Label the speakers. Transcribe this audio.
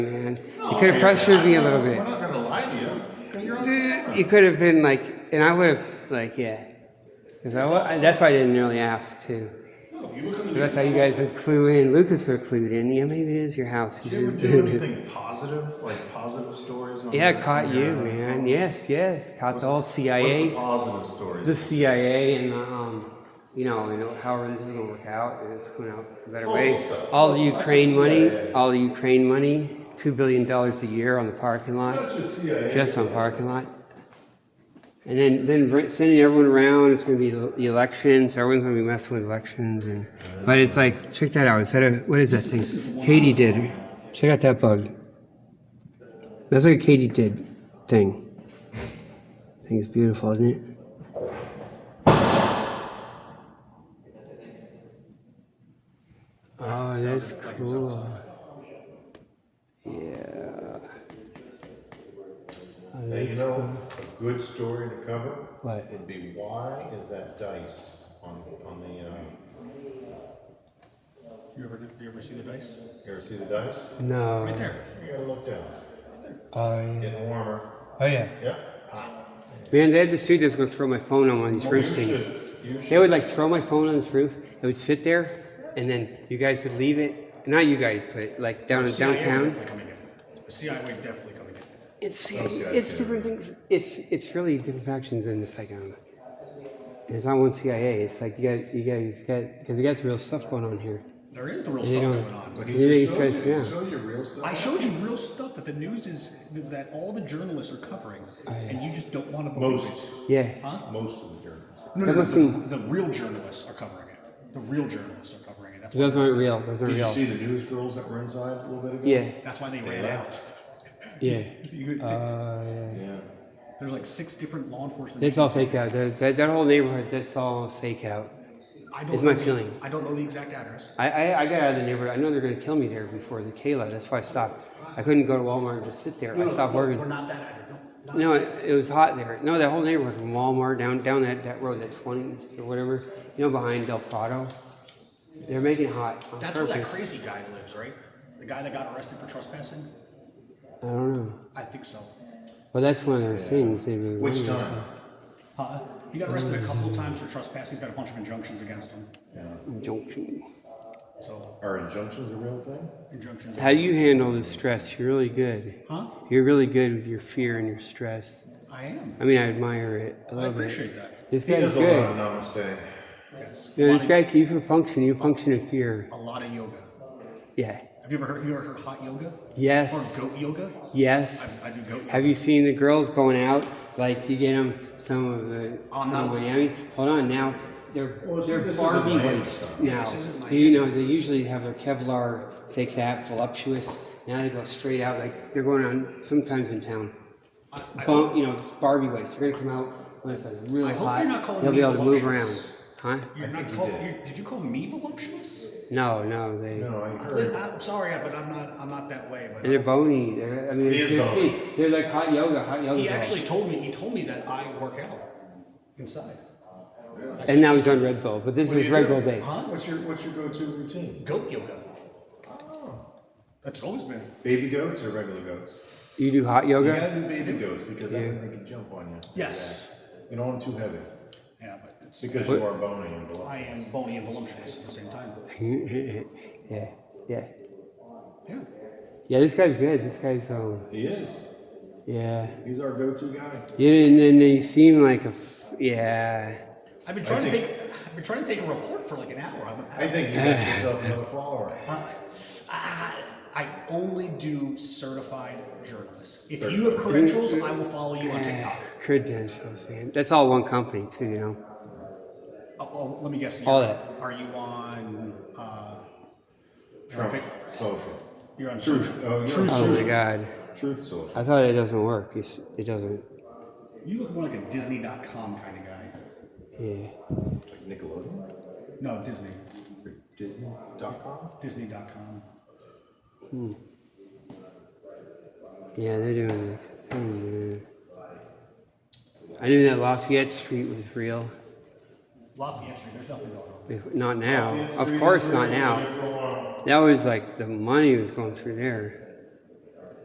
Speaker 1: man. You could have pressured me a little bit.
Speaker 2: We're not gonna lie to you. 'cause you're on-
Speaker 1: You could have been like, and I would have like, yeah. 'Cause I wa- that's why I didn't really ask too.
Speaker 3: No, you were coming.
Speaker 1: That's how you guys would clue in. Lucas would clue in. Yeah, maybe it is your house.
Speaker 2: Do you ever do anything positive, like positive stories? On
Speaker 1: yeah,
Speaker 2: your-
Speaker 1: caught you,
Speaker 2: your-
Speaker 1: man. Yes, yes, caught the whole CIA.
Speaker 2: What's the positive stories?
Speaker 1: the CIA and the, um, you know, and however this is gonna work out, and it's going out a better way. All the Ukraine money, all the Ukraine money, two billion dollars a year on the parking lot,
Speaker 3: Not just CIA.
Speaker 1: just on parking lot. And then, then br- sending everyone around, it's gonna be the the elections, everyone's gonna be messing with elections and, but it's like, check that out, instead of, what is that thing? Katie did, check out that bug. That's like a Katie did thing. I think it's beautiful, isn't it? Oh, that's cool.
Speaker 2: Hey, you know, a good story to cover
Speaker 1: What?
Speaker 2: would be why is that dice on on the? Um,
Speaker 3: You ever, you ever see the dice?
Speaker 2: you ever see the dice?
Speaker 1: No.
Speaker 3: Right there.
Speaker 2: You gotta look down.
Speaker 1: Oh, yeah.
Speaker 2: Getting warmer.
Speaker 1: Oh, yeah.
Speaker 2: Yeah.
Speaker 1: Man, they had this dude that's going to throw my phone on one of these
Speaker 2: You
Speaker 1: roof things.
Speaker 2: should- You
Speaker 1: They
Speaker 2: should.
Speaker 1: would like throw my phone on this roof. It would sit there, and then you guys would leave it. Not you guys, but like down in
Speaker 3: CIA
Speaker 1: downtown.
Speaker 3: Definitely coming in. The CIA definitely coming in.
Speaker 1: It's
Speaker 2: guys
Speaker 1: it's
Speaker 2: do.
Speaker 1: different things. It's it's really different factions, and it's like um, it's not one CIA. It's like you got you guys got because we got the real stuff going on here.
Speaker 3: There is the real
Speaker 1: They
Speaker 3: stuff
Speaker 1: don't.
Speaker 3: going on. But
Speaker 1: They make
Speaker 2: Show
Speaker 1: us
Speaker 2: you-
Speaker 1: yeah.
Speaker 2: show you real stuff.
Speaker 3: I showed you real stuff that the news is that all the journalists are covering, and you just don't want to believe
Speaker 2: Most,
Speaker 3: it.
Speaker 1: Yeah.
Speaker 2: most of the journals.
Speaker 3: No,
Speaker 1: That
Speaker 3: no, no,
Speaker 1: must
Speaker 3: the, the real journalists are covering it. The real journalists are covering it. That's why,
Speaker 1: Those aren't real. Those aren't
Speaker 2: Did you
Speaker 1: real.
Speaker 2: see the news girls that were inside a little bit ago?
Speaker 1: Yeah.
Speaker 3: that's why they ran out.
Speaker 2: left.
Speaker 1: Yeah.
Speaker 3: You- they-
Speaker 1: Uh,
Speaker 2: Yeah.
Speaker 3: there's like six different law enforcement.
Speaker 1: That's all fake out. That, that, that whole neighborhood, that's all fake out.
Speaker 3: I don't
Speaker 1: is my
Speaker 3: know the-
Speaker 1: feeling.
Speaker 3: I don't know the exact address.
Speaker 1: I, I, I got out of the neighborhood. I know they're going to kill me there before the Kayla. That's why I stopped. I couldn't go to Walmart and just sit there.
Speaker 3: No,
Speaker 1: I
Speaker 3: no,
Speaker 1: stopped
Speaker 3: no, We're
Speaker 1: working.
Speaker 3: not that address. No, not
Speaker 1: No, it, it was hot there. No, that whole neighborhood from Walmart down down that, that road, that 20th or whatever, you know, behind Del Prado. They're making it hot on
Speaker 3: That's where that
Speaker 1: purpose.
Speaker 3: crazy guy lives, right? The guy that got arrested for trespassing?
Speaker 1: I don't know.
Speaker 3: I think so.
Speaker 1: Well, that's one of their things. They really
Speaker 2: Which
Speaker 1: wanted.
Speaker 2: time?
Speaker 3: Uh, he got arrested a couple of times for trespassing. He's got a bunch of injunctions against him.
Speaker 1: Injunction.
Speaker 3: So,
Speaker 2: Are injunctions a real thing?
Speaker 3: injunctions.
Speaker 1: How do you handle the stress? You're really good.
Speaker 3: Huh?
Speaker 1: You're really good with your fear and your stress.
Speaker 3: I am.
Speaker 1: I mean, I admire it a
Speaker 3: I
Speaker 1: little bit.
Speaker 3: appreciate that.
Speaker 1: This
Speaker 2: He
Speaker 1: guy's
Speaker 2: does a lot
Speaker 1: good.
Speaker 2: of namaste.
Speaker 3: Yes.
Speaker 1: No,
Speaker 3: a,
Speaker 1: this
Speaker 3: lot
Speaker 1: guy, you can function. You function in fear.
Speaker 3: of, a lot of yoga.
Speaker 1: Yeah.
Speaker 3: Have you ever heard, you ever heard of hot yoga?
Speaker 1: Yes.
Speaker 3: Or goat yoga?
Speaker 1: Yes.
Speaker 3: I- I do goat
Speaker 1: Have you seen the girls going out? Like you get them some of the
Speaker 3: Oh,
Speaker 1: from
Speaker 3: no.
Speaker 1: Miami. Hold on now. They're
Speaker 2: Well, so
Speaker 1: they're
Speaker 2: this isn't
Speaker 1: Barbie
Speaker 2: Miami
Speaker 1: waist
Speaker 2: stuff.
Speaker 1: now.
Speaker 3: This isn't Miami.
Speaker 1: You know they usually have their Kevlar fake fat voluptuous. Now they go straight out like they're going on sometimes in town.
Speaker 3: I, I,
Speaker 1: Bump, you know, Barbie waist. They're gonna come out when it's like really
Speaker 3: I hope
Speaker 1: hot.
Speaker 3: you're not calling
Speaker 1: They'll
Speaker 3: me
Speaker 1: be able to move around,
Speaker 3: voluptuous.
Speaker 1: huh?
Speaker 3: you're
Speaker 2: I
Speaker 3: not
Speaker 2: think you
Speaker 3: call,
Speaker 2: did.
Speaker 3: you, did you call me voluptuous?
Speaker 1: No, no, they.
Speaker 2: No, I heard.
Speaker 3: Li- I'm sorry, but I'm not, I'm not that way. But
Speaker 1: And they're bony. They're, I mean,
Speaker 2: He
Speaker 1: they're,
Speaker 2: is
Speaker 1: seriously,
Speaker 2: bony.
Speaker 1: they're like hot yoga, hot yoga.
Speaker 3: He
Speaker 1: balls.
Speaker 3: actually told me. He told me that I work out inside.
Speaker 1: and now he's on Red Bull, but this is
Speaker 2: do
Speaker 1: his
Speaker 2: you
Speaker 1: Red
Speaker 2: do?
Speaker 1: Bull day.
Speaker 3: Huh?
Speaker 2: What's your, what's your go-to routine?
Speaker 3: Goat yoga. Oh. That's always been.
Speaker 2: Baby goats or regular goats?
Speaker 1: You do hot
Speaker 2: You
Speaker 1: yoga?
Speaker 2: gotta do baby goats because then they can jump on you.
Speaker 3: Yes.
Speaker 2: You don't want them too heavy
Speaker 3: Yeah, but it's,
Speaker 2: because you are bony and
Speaker 3: I
Speaker 2: below.
Speaker 3: am bony and voluptuous at the same time.
Speaker 1: Yeah. yeah, yeah,
Speaker 3: Yeah.
Speaker 1: This guy's good. This guy's um,
Speaker 2: He is.
Speaker 1: yeah.
Speaker 2: He's our go-to guy.
Speaker 1: You and then they seem like a f- yeah.
Speaker 3: I've been trying
Speaker 2: think-
Speaker 3: to take. I've been trying to take a report for like an hour. I'm,
Speaker 2: I think you got yourself another follower.
Speaker 3: I, I only do certified journalists. If you have credentials, I will follow you on TikTok.
Speaker 1: Credentials, man. That's all one company too, you know.
Speaker 3: Oh, oh, let me guess.
Speaker 1: All
Speaker 3: you're-
Speaker 1: that.
Speaker 3: Are you on? Uh,
Speaker 2: Trump
Speaker 3: Trump.
Speaker 2: social.
Speaker 3: You're on
Speaker 2: Truth.
Speaker 3: social.
Speaker 2: Oh, you're on
Speaker 1: Oh my God,
Speaker 2: Truth social.
Speaker 1: I thought it doesn't work. It's, it doesn't.
Speaker 3: You look more like a Disney.com kind of guy.
Speaker 1: Yeah.
Speaker 2: Like Nickelodeon.
Speaker 3: No, Disney.
Speaker 2: Or Disney.com.
Speaker 3: Disney.com.
Speaker 1: Yeah, they're doing like thing, man. I knew that Lafayette Street was real.
Speaker 3: Lafayette Street, there's nothing going on.
Speaker 1: If- Not now. Of course, not now. That was like the money was going through there.